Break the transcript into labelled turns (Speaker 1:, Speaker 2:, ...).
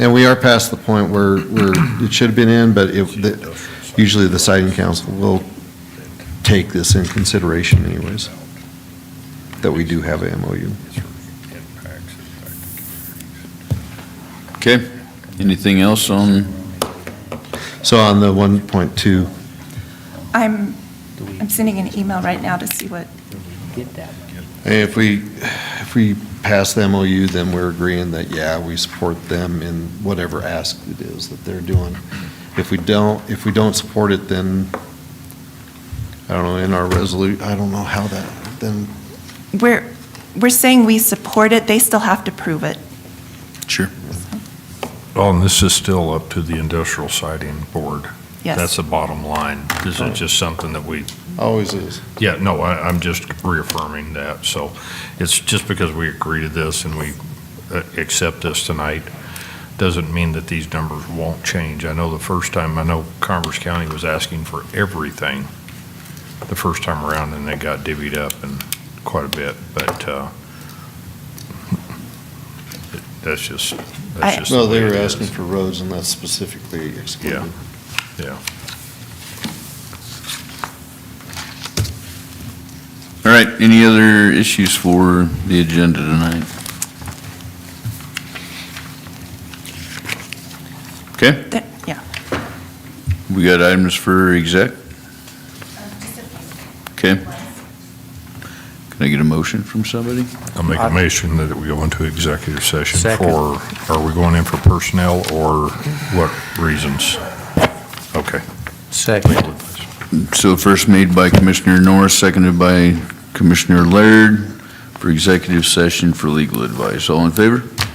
Speaker 1: And we are past the point where, where it should have been in, but if, the- usually the siding council will take this in consideration anyways, that we do have a MOU.
Speaker 2: Okay, anything else on,
Speaker 1: So on the 1.2,
Speaker 3: I'm, I'm sending an email right now to see what,
Speaker 4: Get that.
Speaker 1: Hey, If we, if we pass the MOU, then we're agreeing that, yeah, we support them in whatever ask it is that they're doing. If we don't, if we don't support it, then, I don't know, in our resolu, I don't know how that, then,
Speaker 3: we're, we're saying we support it, they still have to prove it.
Speaker 2: sure,
Speaker 5: Oh, and this is still up to the industrial siding board. That's
Speaker 3: Yes.
Speaker 5: the bottom line. This
Speaker 1: Oh.
Speaker 5: is just something that we,
Speaker 1: always is.
Speaker 5: yeah, no, I, I'm just reaffirming that. So it's just because we agree to this and we uh, accept this tonight, doesn't mean that these numbers won't change. I know the first time, I know Converse County was asking for everything the first time around and they got divvied up and quite a bit, but, uh, that's just,
Speaker 3: I-
Speaker 5: that's just.
Speaker 1: No,
Speaker 5: the way
Speaker 1: they were
Speaker 5: it is.
Speaker 1: asking for roads and that's specifically excluded.
Speaker 5: Yeah. Yeah.
Speaker 2: all right, any other issues for the agenda tonight? Okay,
Speaker 3: That- Yeah.
Speaker 2: we got items for exec, okay? Can I get a motion from somebody?
Speaker 5: I'll make a motion that we go into executive session
Speaker 4: Second.
Speaker 5: for, are we going in for personnel or what reasons? Okay.
Speaker 4: Second.
Speaker 2: So first made by Commissioner Norris, seconded by Commissioner Laird for executive session for legal advice. All in favor?